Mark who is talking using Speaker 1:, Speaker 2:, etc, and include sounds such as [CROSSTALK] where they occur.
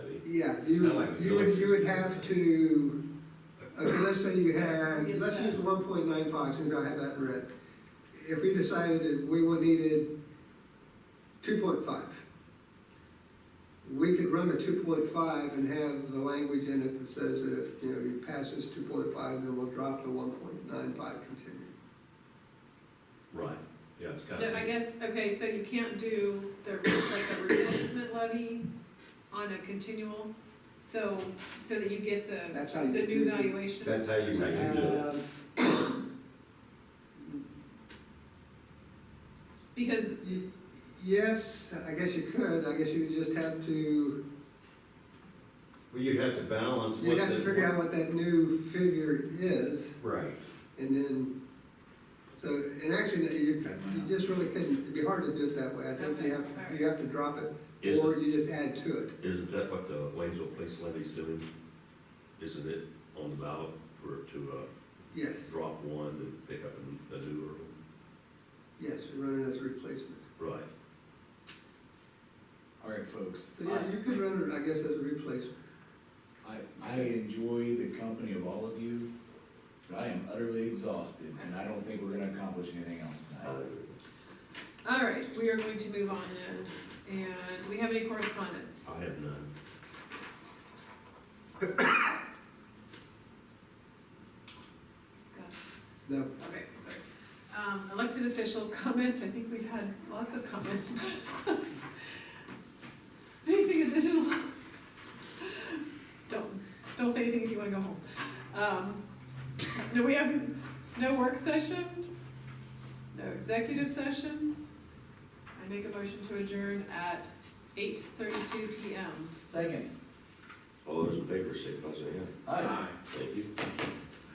Speaker 1: Yeah,
Speaker 2: It's
Speaker 1: you,
Speaker 2: not like the
Speaker 1: you would, you would
Speaker 2: electricity.
Speaker 1: have to, okay, let's say you had,
Speaker 3: Yes,
Speaker 1: let's use
Speaker 3: yes.
Speaker 1: one point nine five, since I have that in red. If we decided that we were needed two point five, we could run a two point five and have the language in it that says that if, you know, you pass this two point five, then we'll drop to one point nine five continue.
Speaker 2: Right, yeah, it's kind
Speaker 3: No, I
Speaker 2: of,
Speaker 3: guess, okay, so you can't do the, like a replacement levy on a continual, so, so that you get the,
Speaker 1: That's how
Speaker 3: the
Speaker 1: you.
Speaker 3: new valuation?
Speaker 4: That's how you make it.
Speaker 1: Um,
Speaker 3: Because,
Speaker 1: Y- Yes, I guess you could, I guess you would just have to,
Speaker 4: Well, you have to balance what.
Speaker 1: you'd have to
Speaker 4: the-
Speaker 1: figure out what that new figure is,
Speaker 4: Right,
Speaker 1: and then, so, and actually, no, you, you just really couldn't, it'd be hard to do it that way, I think you
Speaker 3: Okay,
Speaker 1: have,
Speaker 3: alright.
Speaker 1: you have to drop it,
Speaker 2: is,
Speaker 1: or you just add to it.
Speaker 2: isn't that what the Waynesville Police Levy's doing? Isn't it on the ballot for, to, uh,
Speaker 1: Yes,
Speaker 2: drop one and pick up a a newer one?
Speaker 1: yes, run it as a replacement.
Speaker 2: Right,
Speaker 5: All right, folks.
Speaker 1: So, yeah, you could run it, I guess, as a replacement.
Speaker 5: I, I enjoy the company of all of you, but I am utterly exhausted, and I don't think we're gonna accomplish anything else tonight.
Speaker 3: all right, we are going to move on then, and do we have any correspondence?
Speaker 2: I have none.
Speaker 3: Gosh.
Speaker 1: No,
Speaker 3: Okay, sorry. Um, elected officials' [LAUGHS] comments, I think we've had lots of comments. [LAUGHS] Anything additional? Don't, don't say anything if you wanna go home. Um, no, we have no work session, no executive session. I make a motion to adjourn at eight thirty-two PM.
Speaker 5: Second.
Speaker 2: All those in favor, signify by saying
Speaker 5: Aye.
Speaker 2: aye.